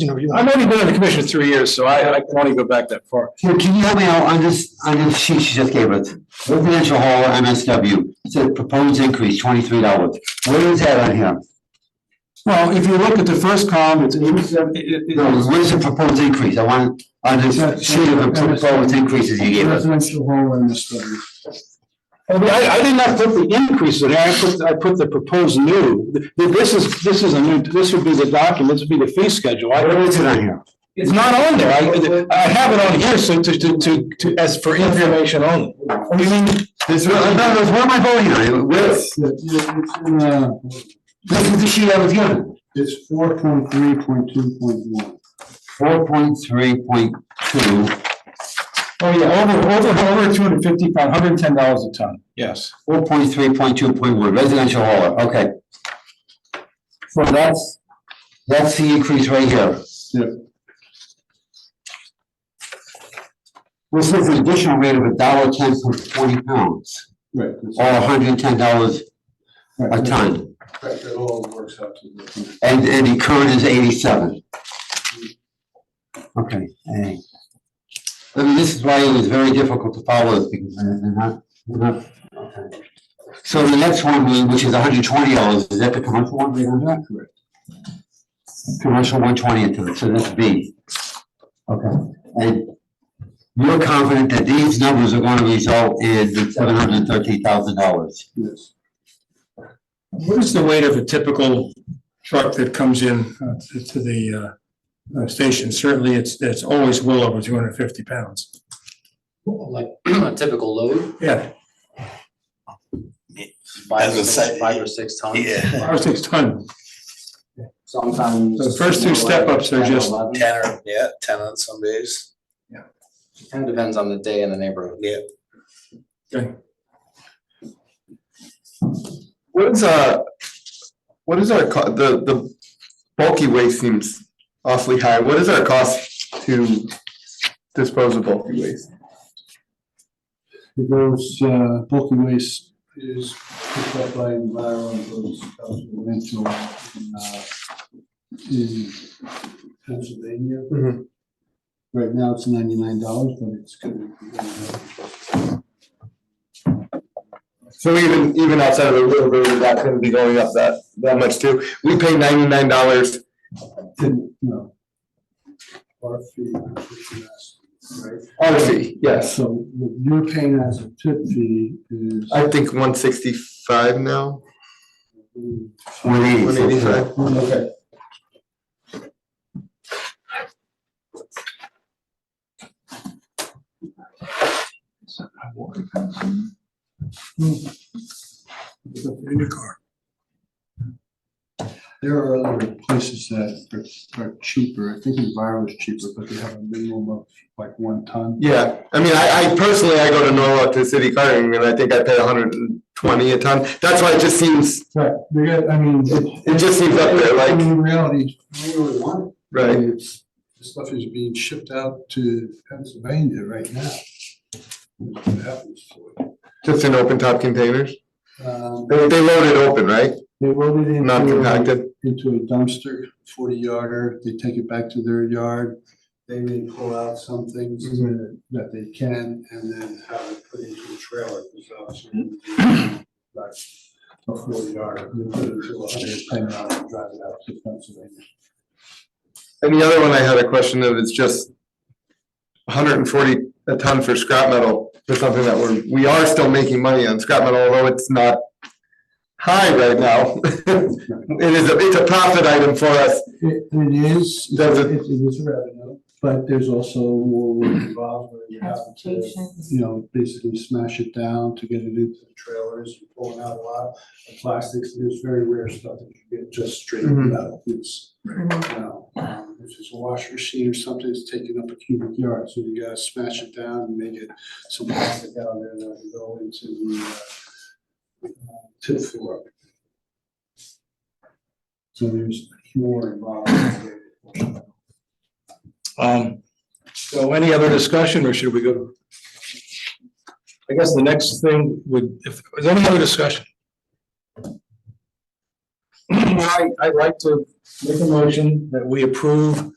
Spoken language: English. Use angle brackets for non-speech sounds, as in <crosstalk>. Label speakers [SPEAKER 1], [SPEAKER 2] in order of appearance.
[SPEAKER 1] you know, you
[SPEAKER 2] I've
[SPEAKER 1] know.
[SPEAKER 2] only been on the commission three years, so I, I can only go back that far.
[SPEAKER 3] Can can you help me out on this, on this sheet she just gave us? Residential hall MSW, it said proposed increase twenty-three dollars. Where is that on here?
[SPEAKER 2] Well, if you look at the first column, it's eighty-seven,
[SPEAKER 3] No, where's the proposed increase? I want, on this sheet of the proposed increases you gave us.
[SPEAKER 1] Residential home and this study.
[SPEAKER 2] I mean, I, I did not put the increase in there, I put, I put the proposed new. Th- This is, this is a new, this would be the document, this would be the fee schedule. I-
[SPEAKER 3] Where is it on here?
[SPEAKER 2] It's not on there, I, I have it on here, so to, to, to, to, as for information only.
[SPEAKER 3] You mean, there's, no, no, there's- what am I voting on? Where,
[SPEAKER 1] It's, it's, in, uh,
[SPEAKER 3] this is the sheet I was given.
[SPEAKER 1] it's four point three point two point one.
[SPEAKER 3] Four point three point two.
[SPEAKER 2] Oh, yeah, over, over, over two hundred fifty-five, hundred and ten dollars a ton. Yes.
[SPEAKER 3] Four point three point two point one, residential hauler, okay. So that's, that's the increase right here.
[SPEAKER 1] Yeah.
[SPEAKER 3] This is an additional rate of a dollar ten per forty pounds,
[SPEAKER 1] Right. that's-
[SPEAKER 3] or
[SPEAKER 4] Oh,
[SPEAKER 3] hundred and ten dollars a
[SPEAKER 1] right,
[SPEAKER 3] ton,
[SPEAKER 1] That that all works out to the.
[SPEAKER 3] and, and the current is eighty-seven. Okay, eh. I mean, this is why it was very difficult to follow this, because they're they're not, they're not. okay. So the next one, which is hundred and twenty dollars, is that the commercial one, we don't have?
[SPEAKER 1] Correct.
[SPEAKER 3] Commercial one twenty into it, so that's B. Okay. And you're confident that these numbers are gonna result in the seven hundred and thirteen thousand dollars?
[SPEAKER 1] Yes.
[SPEAKER 2] What is the weight of a typical truck that comes in uh, to- to the uh, uh, station? Certainly, it's, it's always well over two hundred fifty pounds.
[SPEAKER 5] like <clears throat> a typical load,
[SPEAKER 2] Yeah,
[SPEAKER 5] five
[SPEAKER 6] As
[SPEAKER 5] or
[SPEAKER 6] a
[SPEAKER 5] six,
[SPEAKER 6] site-
[SPEAKER 5] five or six tons.
[SPEAKER 6] Yeah,
[SPEAKER 2] five or six ton.
[SPEAKER 5] Sometimes.
[SPEAKER 2] The first two step-ups are
[SPEAKER 5] 10,
[SPEAKER 2] just-
[SPEAKER 5] 11.
[SPEAKER 6] ten or, yeah, ten on some days.
[SPEAKER 5] Kind of depends on the day and the neighborhood.
[SPEAKER 6] Yeah.
[SPEAKER 2] Okay.
[SPEAKER 4] What is uh, what is our co- the the bulky waste seems awfully high. What is our cost to dispose of bulky waste?
[SPEAKER 1] It goes, uh, bulky waste is picked up by environment, goes out to the landfill in, uh, in Pennsylvania.
[SPEAKER 2] Mm-hmm.
[SPEAKER 4] Mhm.
[SPEAKER 1] Right now, it's ninety-nine dollars, but it's gonna be. uh,
[SPEAKER 4] So even even outside of the river, that's going to be going up that that much too. We pay ninety nine dollars.
[SPEAKER 1] Didn't, no. Our fee, which you asked, right?
[SPEAKER 4] Our fee, Oh, yes.
[SPEAKER 1] So what you're paying as a tip fee is.
[SPEAKER 4] I think one sixty five now.
[SPEAKER 3] One eighty.
[SPEAKER 4] One eighty five.
[SPEAKER 1] Okay.
[SPEAKER 2] In your car.
[SPEAKER 1] There are other places that are- are cheaper, I think Enviro is cheaper, but they have a minimum of like one ton.
[SPEAKER 4] Yeah, I mean, I I personally I go to Norwalk to city carting and I think I pay one hundred and twenty a ton. That's why it just seems
[SPEAKER 1] Right, they got, I mean. it-
[SPEAKER 4] it just seems up there
[SPEAKER 1] I mean,
[SPEAKER 4] like
[SPEAKER 1] In reality, we really want it. I
[SPEAKER 4] right.
[SPEAKER 1] mean, it's- The stuff is being shipped out to Pennsylvania right now. That's what happens to it.
[SPEAKER 4] Just in open top containers.
[SPEAKER 1] Um,
[SPEAKER 4] They they load it open, right?
[SPEAKER 1] They load it
[SPEAKER 4] Not
[SPEAKER 1] into, a-
[SPEAKER 4] compacted.
[SPEAKER 1] into a dumpster, forty yarder, they take it back to their yard. They may pull out some things that they can and then have it put into a trailer. because obviously, like A forty yarder, they put it into a hundred ten yarder and drive it out to Pennsylvania.
[SPEAKER 4] And the other one I had a question of, it's just hundred and forty a ton for scrap metal, for something that we're, we are still making money on scrap metal, although it's not high right now. <laughs> It is, a it's a profit item for us.
[SPEAKER 1] It, it is, it
[SPEAKER 4] Does it-
[SPEAKER 1] it is revenue, but there's also more involved where you have to
[SPEAKER 7] Transportation.
[SPEAKER 1] you know, basically smash it down to get it into the trailers, you're pulling out a lot of plastics, there's very rare stuff that you get just straight
[SPEAKER 4] Mhm.
[SPEAKER 1] metal, it's, you know, um, if it's a washing machine or something, it's taking up a cubic yard, so you gotta smash it down and make it some plastic out there that can go into the uh, uh, tip floor. So there's more involved.
[SPEAKER 2] Um, so any other discussion or should we go? I guess the next thing would, if, is there any other discussion? <clears throat> I, I'd like to make a motion that we approve